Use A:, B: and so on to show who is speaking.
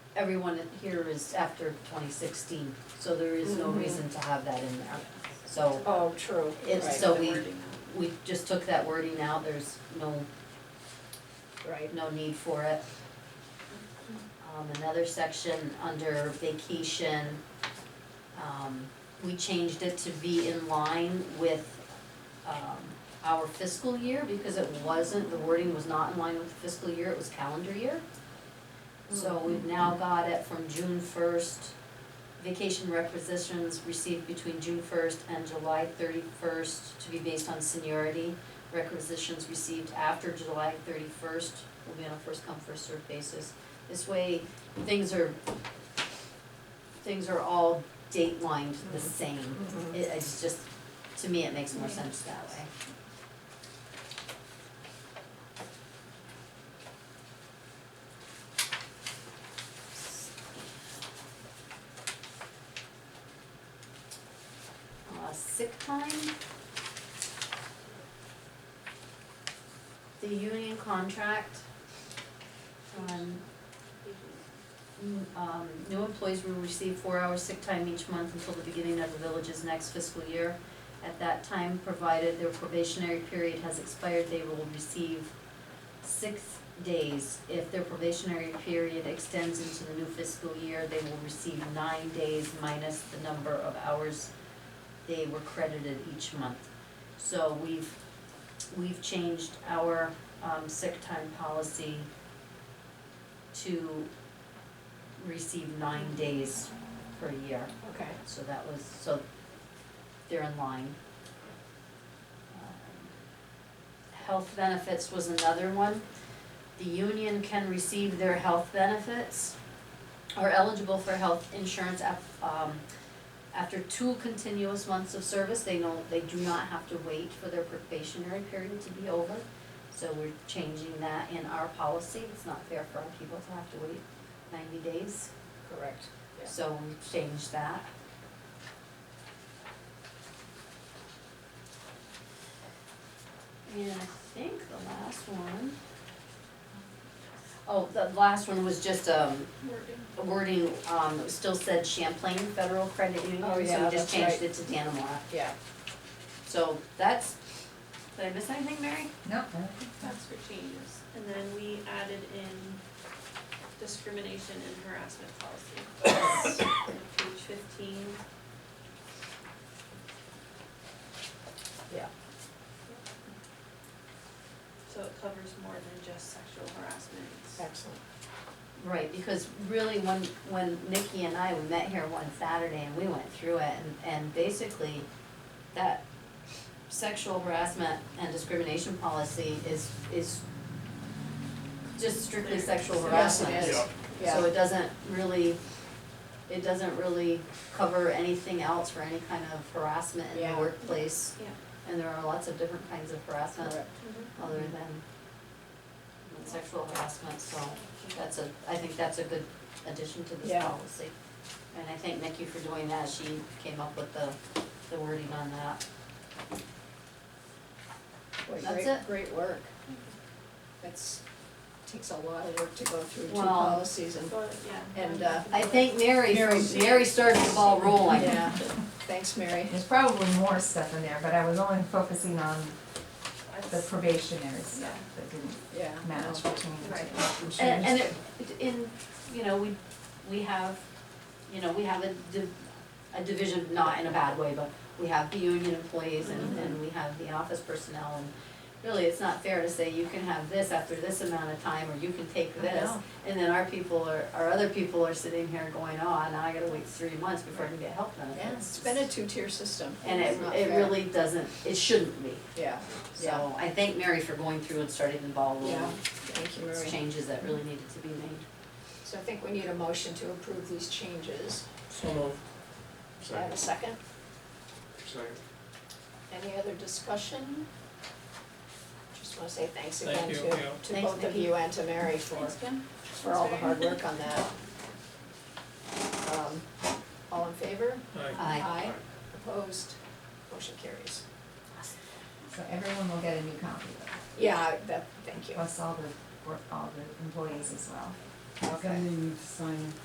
A: everyone here is after twenty sixteen, so there is no
B: Mhm.
A: reason to have that in there. So
B: Oh, true.
A: it's,
B: Right.
A: so we, we just took that wording out, there's no,
B: Right.
A: no need for it. Um, another section under vacation, um, we changed it to be in line with, um, our fiscal year because it wasn't, the wording was not in line with the fiscal year, it was calendar year. So we've now got it from June first, vacation requisitions received between June first and July thirty-first to be based on seniority. Requisitions received after July thirty-first will be on a first come, first served basis. This way, things are, things are all date lined the same.
B: Mhm.
A: It, it's just, to me, it makes more sense that way. Uh, sick time. The union contract. Um, n- um, new employees will receive four hours sick time each month until the beginning of the village's next fiscal year. At that time, provided their probationary period has expired, they will receive six days. If their probationary period extends into the new fiscal year, they will receive nine days minus the number of hours they were credited each month. So we've, we've changed our, um, sick time policy to receive nine days per year.
B: Okay.
A: So that was, so they're in line. Um, Health benefits was another one. The union can receive their health benefits, are eligible for health insurance af- um, after two continuous months of service, they know, they do not have to wait for their probationary period to be over. So we're changing that in our policy, it's not fair for our people to have to wait ninety days.
B: Correct. Yeah.
A: So we changed that. And I think the last one. Oh, the last one was just um a wording, um, it still said Champlain Federal Credit Union,
B: Oh,
A: so we
B: yeah,
A: just
B: that's
A: changed
B: right.
A: it to Danamora.
B: Yeah.
A: So that's, did I miss anything, Mary?
C: Nope.
D: That's for changes, and then we added in discrimination and harassment policy. Page fifteen,
B: Yeah.
D: so it covers more than just sexual harassment.
B: Excellent.
A: Right, because really when, when Mickey and I, we met here one Saturday and we went through it and, and basically that sexual harassment and discrimination policy is, is just strictly sexual
B: Yes, it
A: harassment.
B: is.
A: So
B: Yeah.
A: it doesn't really, it doesn't really cover anything else for any kind of harassment in the
B: Yeah.
A: workplace.
D: Yeah.
A: And there are lots of different kinds of harassment
B: Correct.
A: other than sexual harassment, so
D: Mm-hmm.
A: that's a, I think that's a good addition to this
B: Yeah.
A: policy. And I thank Nikki for doing that, she came up with the, the wording on that.
B: Boy,
A: That's
B: great-
A: it.
B: Great work. That's, takes a lot of work to go through two
A: Well-
B: policies and,
D: But, yeah.
B: And, uh,
A: I thank Mary, for-
B: Mary.
A: Mary started the ball rolling.
B: yeah. Thanks, Mary.
C: There's probably more stuff in there, but I was only focusing on the
D: That's-
C: probationary stuff that didn't
B: Yeah.
C: match between the
D: Right.
C: two.
A: And, and it, in, you know, we, we have, you know, we have a div- a division, not in a bad way, but we have the union employees
B: Mm-hmm.
A: and, and we have the office personnel and really, it's not fair to say you can have this after this amount of time, or you can take
C: I
A: this.
C: know.
A: And then our people are, our other people are sitting here going, oh, now I gotta wait three months before I can get health benefits.
B: Yeah, it's been a two-tier system.
A: And
B: It's
A: it,
B: not
A: it
B: fair.
A: really doesn't, it shouldn't be,
B: Yeah, yeah,
A: so I thank Mary for going through and starting the ball rolling.
B: yeah. Thank you,
A: It's
B: Mary.
A: changes that really needed to be made.
B: So I think we need a motion to approve these changes.
E: So moved.
B: Do I have a
E: Second,
B: second?
E: second.
B: Any other discussion? Just wanna say thanks again
E: Thank
B: to,
E: you, yeah.
B: to
A: Thanks,
B: both of
A: Nikki.
B: you and to Mary for,
D: Thanks, Kim.
B: for all the hard work on that. Um, All in favor?
E: Aye.
A: Aye.
B: Aye. Opposed? Motion carries.
C: So everyone will get a new copy of it,
B: Yeah, that, thank you.
C: plus all the, work- all the employees as well.
B: Okay.
F: Then you need to sign